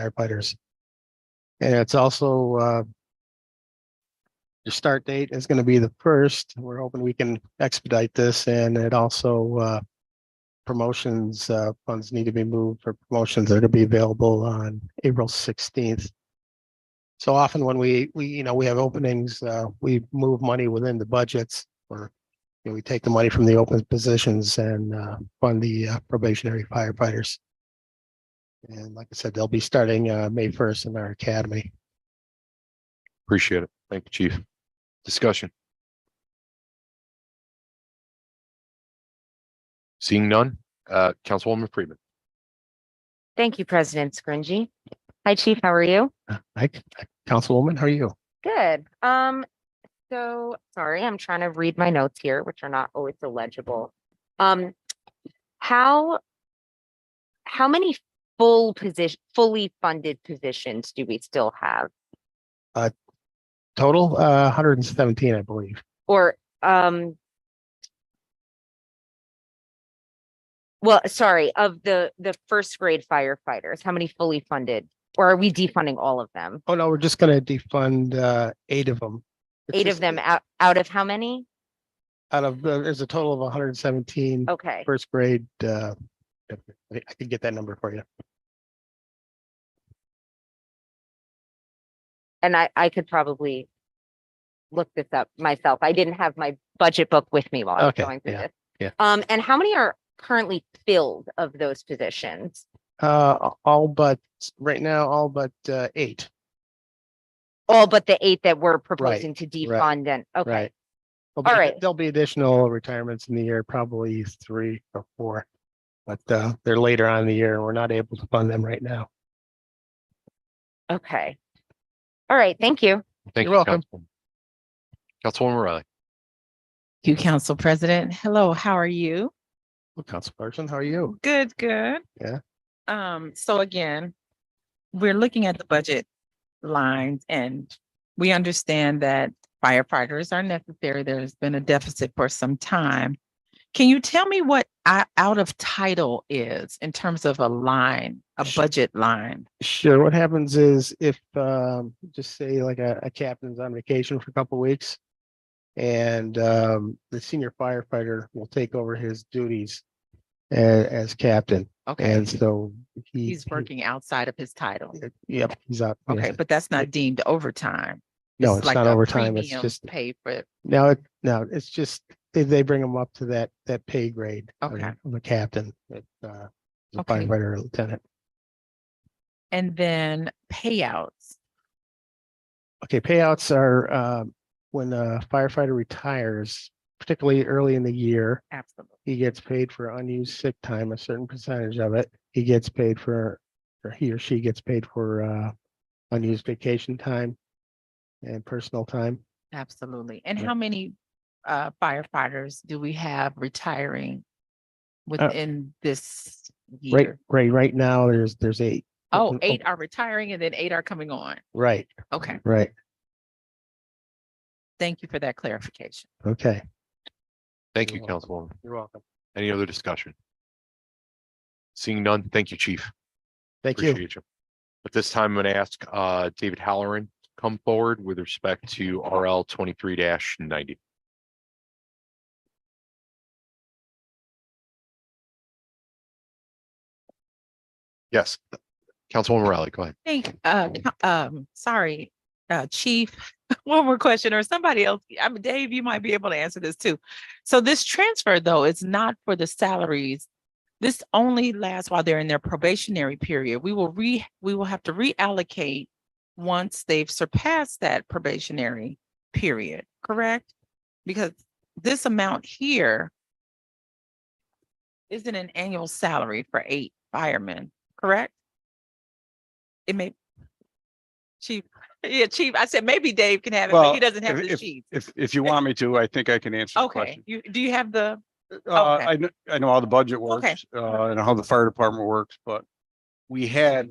firefighters. And it's also, uh, the start date is going to be the first. We're hoping we can expedite this and it also, uh, promotions, uh, funds need to be moved for promotions that are to be available on April sixteenth. So often when we, we, you know, we have openings, uh, we move money within the budgets or you know, we take the money from the open positions and, uh, fund the uh, probationary firefighters. And like I said, they'll be starting, uh, May first in our academy. Appreciate it. Thank you, chief. Discussion. Seeing none, uh, Councilwoman Freeman. Thank you, President Scringy. Hi, Chief. How are you? Hi, Uh, Councilwoman, how are you? Good. Um, so sorry, I'm trying to read my notes here, which are not always illegible. Um, how how many full position, fully funded positions do we still have? Total, uh, hundred and seventeen, I believe. Or um well, sorry, of the the first grade firefighters, how many fully funded? Or are we defunding all of them? Oh, no, we're just gonna defund, uh, eight of them. Eight of them out out of how many? Out of, the- there's a total of hundred and seventeen Okay. first grade, uh, I I can get that number for you. and I, I could probably look this up myself. I didn't have my budget book with me while I was Okay, going through yeah, this. yeah. Um, and how many are currently filled of those positions? Uh, all but, right now, all but, uh, eight, All but the eight that we're proposing to right, defund and, okay, right? There'll be- right. There'll be additional retirements in the year, probably three or four. But, uh, they're later on in the year and we're not able to fund them right now. okay. All right, thank you. Thank You're you, welcome. Councilwoman. Councilwoman Riley. Thank you, Council President. Hello, how are you? Well, Councilperson, how are you? Good, good. Yeah. Um, so again, we're looking at the budget lines and we understand that firefighters are necessary. There's been a deficit for some time. Can you tell me what o- out of title is in terms of a line, a Sh- budget line? Sure. What happens is if, um, just say like a, a captain's on vacation for a couple weeks. And, um, the senior firefighter will take over his duties a- as captain. Okay, And so he. he's he- working outside of his title. Yep, he's out. yes. Okay, but that's not deemed overtime. No, This is it's like not a overtime. It's premium just, Pay for, now, it now it's just, they, they bring him up to that, that pay grade. of- Okay. Of a captain, that, uh, is a Okay. firefighter or lieutenant. and then payouts. Okay, payouts are, um, when a firefighter retires, particularly early in the year. Absolutely. He gets paid for unused sick time, a certain percentage of it. He gets paid for, or he or she gets paid for uh unused vacation time and personal time. Absolutely. And Yeah. how many uh, firefighters do we have retiring Uh within this Right, year? right, right now, there's, there's eight. Oh, open- eight are retiring and then eight are coming on. Right, Okay, right, thank you for that clarification. okay. Thank you, You're Councilwoman. You're welcome. Any other discussion? Seeing none, thank you, chief. Thank you. Appreciate you. At this time, I'm going to ask uh, David Halloran to come forward with respect to RL twenty-three ninety. Yes, Councilwoman Riley, go ahead. Thank, uh, co- um, sorry, uh, chief, one more question or somebody else. I mean, Dave, you might be able to answer this too. So this transfer though is not for the salaries. This only lasts while they're in their probationary period. We will re, we will have to reallocate once they've surpassed that probationary period, correct? Because this amount here isn't an annual salary for eight firemen, correct? It may. Chief, yeah, chief, I said maybe Dave can have it, but Well, he doesn't have if- the chief. If, if you want me to, I think I can answer the Eh, Okay, question. you, do you have the, Uh, okay. I know, I know how the budget Okay. works, uh, and how the fire department works, but we had,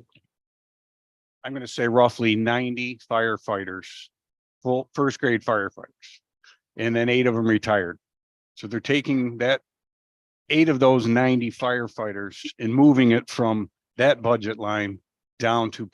I'm gonna say roughly ninety firefighters, full, first grade firefighters, and then eight of them retired. So they're taking that, eight of those ninety firefighters and moving it from that budget line down to